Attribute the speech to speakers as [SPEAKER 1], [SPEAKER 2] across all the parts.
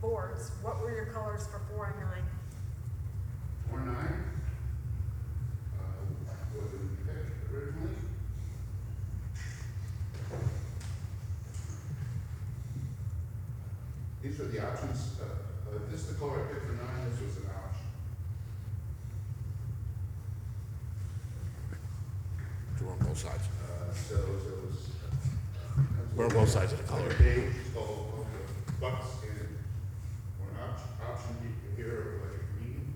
[SPEAKER 1] boards, what were your colors for four and nine?
[SPEAKER 2] Four nine, uh, was picked originally. These are the options, uh, uh, this is the color I picked for nine, this was an option.
[SPEAKER 3] We're on both sides.
[SPEAKER 2] Uh, so, so it was. uh,
[SPEAKER 3] We're on both sides of the color.
[SPEAKER 2] Like a page, oh, okay, bucks and, or an option, option here, like a green.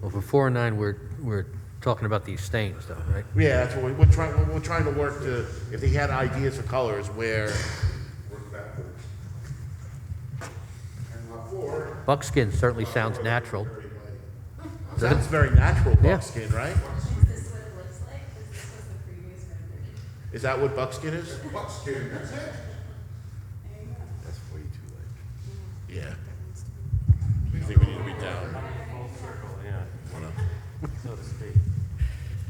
[SPEAKER 4] Well, for four and nine, we're, we're talking about these stains though, right?
[SPEAKER 5] Yeah, that's what we, we're trying, we're, we're trying to work to, if they had ideas of colors where,
[SPEAKER 2] work backwards. And lot four.
[SPEAKER 4] Buckskin certainly
[SPEAKER 2] lot
[SPEAKER 4] sounds
[SPEAKER 2] four,
[SPEAKER 4] natural.
[SPEAKER 2] very light.
[SPEAKER 5] sounds very natural
[SPEAKER 4] Yeah.
[SPEAKER 5] buckskin, right?
[SPEAKER 6] Is this what it looks like? Because this was the previous rendering.
[SPEAKER 5] Is that what buckskin is?
[SPEAKER 2] That Buckskin, that's it.
[SPEAKER 6] There you go.
[SPEAKER 5] That's way too late. Yeah.
[SPEAKER 3] I think we need to be down.
[SPEAKER 7] Full circle, yeah,
[SPEAKER 3] Wanna-
[SPEAKER 7] so to speak.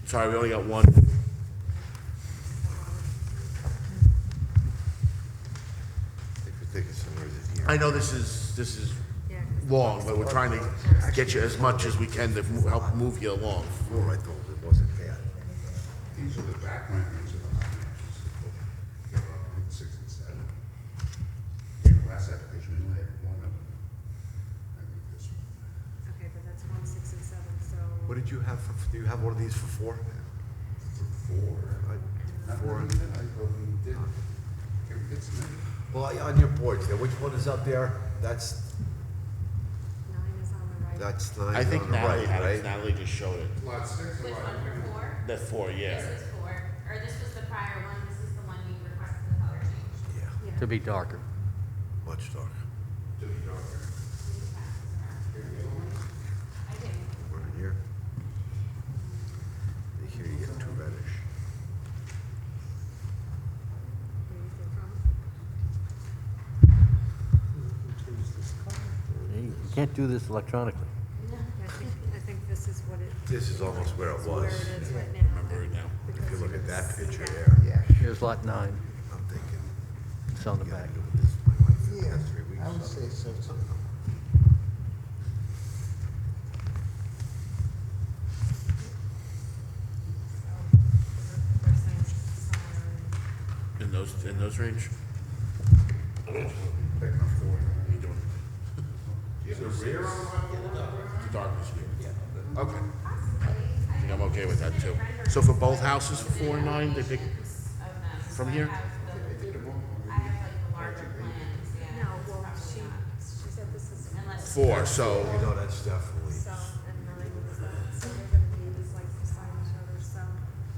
[SPEAKER 5] Sorry, we only got one. I know this is, this is
[SPEAKER 1] Yeah, 'cause-
[SPEAKER 5] long, but we're trying to get you as much as we can to mo- help move you along.
[SPEAKER 2] These are the back renderings of the hot matches. They're up in six and seven. The last application, we only had one of them. I think this one.
[SPEAKER 1] Okay, but that's one, six, and seven, so.
[SPEAKER 8] What did you have for, do you have one of these for four?
[SPEAKER 2] Four.
[SPEAKER 8] I-
[SPEAKER 2] Not
[SPEAKER 8] Four.
[SPEAKER 2] really, I thought we did. Okay, we did some.
[SPEAKER 8] Well, I- on your boards there, which one is up there? That's,
[SPEAKER 1] Nine is on the right.
[SPEAKER 8] that's nine
[SPEAKER 5] I think
[SPEAKER 8] on the
[SPEAKER 5] Natalie
[SPEAKER 8] right,
[SPEAKER 5] had it,
[SPEAKER 8] right?
[SPEAKER 5] Natalie just showed it.
[SPEAKER 2] Lot six. and
[SPEAKER 6] Which
[SPEAKER 2] lot
[SPEAKER 6] one,
[SPEAKER 2] nine.
[SPEAKER 6] four?
[SPEAKER 5] That's four, yeah.
[SPEAKER 6] This is four, or this was the prior one, this is the one you requested the color change.
[SPEAKER 8] Yeah,
[SPEAKER 1] Yeah.
[SPEAKER 4] To be darker.
[SPEAKER 8] much darker.
[SPEAKER 2] To be darker.
[SPEAKER 6] You can pass this around.
[SPEAKER 2] Here we go.
[SPEAKER 6] I didn't.
[SPEAKER 8] One in here. And Here you get two reddish.
[SPEAKER 1] Where you think from?
[SPEAKER 4] You can't do this electronically.
[SPEAKER 1] I think, I think this is what it.
[SPEAKER 8] This is almost where it
[SPEAKER 1] it's Where it
[SPEAKER 8] was.
[SPEAKER 1] is right now.
[SPEAKER 3] Remember it now.
[SPEAKER 8] If you
[SPEAKER 1] Because
[SPEAKER 8] look
[SPEAKER 1] you
[SPEAKER 8] at
[SPEAKER 1] can
[SPEAKER 8] that
[SPEAKER 1] see
[SPEAKER 8] picture
[SPEAKER 1] that.
[SPEAKER 8] there,
[SPEAKER 4] Here's lot nine,
[SPEAKER 8] I'm thinking,
[SPEAKER 4] it's on the
[SPEAKER 8] you gotta
[SPEAKER 4] back.
[SPEAKER 8] do this. My wife had
[SPEAKER 9] Yeah,
[SPEAKER 8] that three weeks
[SPEAKER 9] I would
[SPEAKER 8] ago.
[SPEAKER 9] say so too.
[SPEAKER 1] They're saying somewhere in-
[SPEAKER 5] In those, in those range?
[SPEAKER 2] Picking up four.
[SPEAKER 5] How you doing?
[SPEAKER 2] Do you have a rear on lot four?
[SPEAKER 5] The darkness here.
[SPEAKER 2] Okay.
[SPEAKER 6] Possibly. I
[SPEAKER 5] think I'm okay with that, too.
[SPEAKER 6] submitted renderings
[SPEAKER 5] So for both houses, for four and nine, they pick-
[SPEAKER 6] Of them, so
[SPEAKER 5] from
[SPEAKER 6] I
[SPEAKER 5] here?
[SPEAKER 6] have the-
[SPEAKER 2] They did a moment.
[SPEAKER 6] I have like the larger plans, yeah.
[SPEAKER 1] No,
[SPEAKER 6] it's
[SPEAKER 1] well,
[SPEAKER 6] probably
[SPEAKER 1] she,
[SPEAKER 6] not.
[SPEAKER 1] she said this is
[SPEAKER 6] Unless.
[SPEAKER 5] Four, so.
[SPEAKER 8] You know, that's definitely,
[SPEAKER 1] south and nine is that, so they're gonna be just like beside each other, so.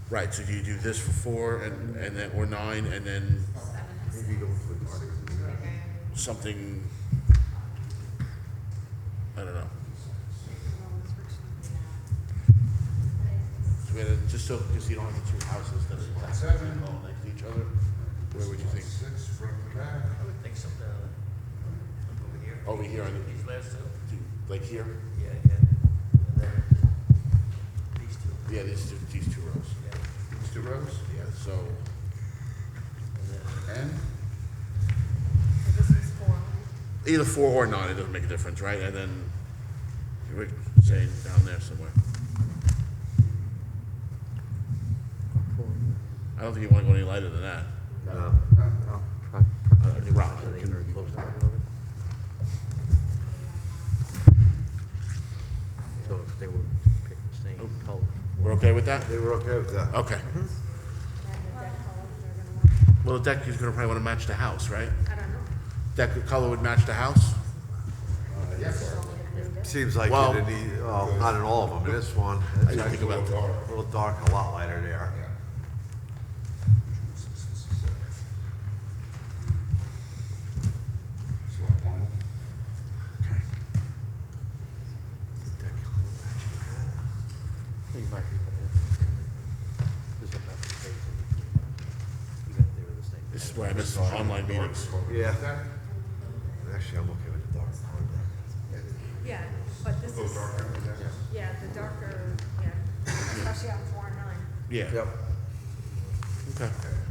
[SPEAKER 5] Right, so do you do this for four and, and then, or nine, and then
[SPEAKER 8] maybe go for the darker.
[SPEAKER 5] something, I don't know. So we had, a- just so, because you don't have the two houses that are exactly all next to each other, where would you think?
[SPEAKER 2] Six front to back.
[SPEAKER 7] I would think something over here.
[SPEAKER 5] Over Oh, here, I think,
[SPEAKER 7] These last two?
[SPEAKER 5] like here?
[SPEAKER 7] Yeah, yeah. And then these two.
[SPEAKER 5] Yeah, these two, these two rows.
[SPEAKER 7] Yeah.
[SPEAKER 2] These two rows?
[SPEAKER 5] Yeah, so,
[SPEAKER 7] And then
[SPEAKER 2] And?
[SPEAKER 1] So this is four.
[SPEAKER 5] either four or nine, it doesn't make a difference, right? And then, you were saying down there somewhere. I don't think you want to go any lighter than that.
[SPEAKER 8] No,
[SPEAKER 9] Oh.
[SPEAKER 5] Uh, Rob, can-
[SPEAKER 4] So if they were picking the same color.
[SPEAKER 5] We're okay with that?
[SPEAKER 8] they were okay with that.
[SPEAKER 5] Okay.
[SPEAKER 1] And the deck color, they're gonna want,
[SPEAKER 5] Well, the deck is gonna probably wanna match the house, right?
[SPEAKER 1] I don't know.
[SPEAKER 5] Deck color would match the house?
[SPEAKER 2] Uh,
[SPEAKER 8] Seems like
[SPEAKER 5] Well-
[SPEAKER 8] it in the, well, not in all of them, in this one. it's
[SPEAKER 5] I didn't think
[SPEAKER 8] actually
[SPEAKER 5] about
[SPEAKER 8] a little dark- A little dark, a lot lighter there.
[SPEAKER 2] oh, Yeah. Six, six, six, seven. So lot one.
[SPEAKER 4] You might be right. There's enough space in between. Even if they were the same.
[SPEAKER 5] This is where I miss online meetings.
[SPEAKER 8] Yeah.
[SPEAKER 2] That,
[SPEAKER 8] Actually, I'm okay with the dark color there.
[SPEAKER 1] Yeah, but this is,
[SPEAKER 2] darker with that.
[SPEAKER 1] yeah, the darker, yeah, especially on four and nine.
[SPEAKER 5] Yeah,
[SPEAKER 8] Yep.
[SPEAKER 5] okay.
[SPEAKER 2] Okay.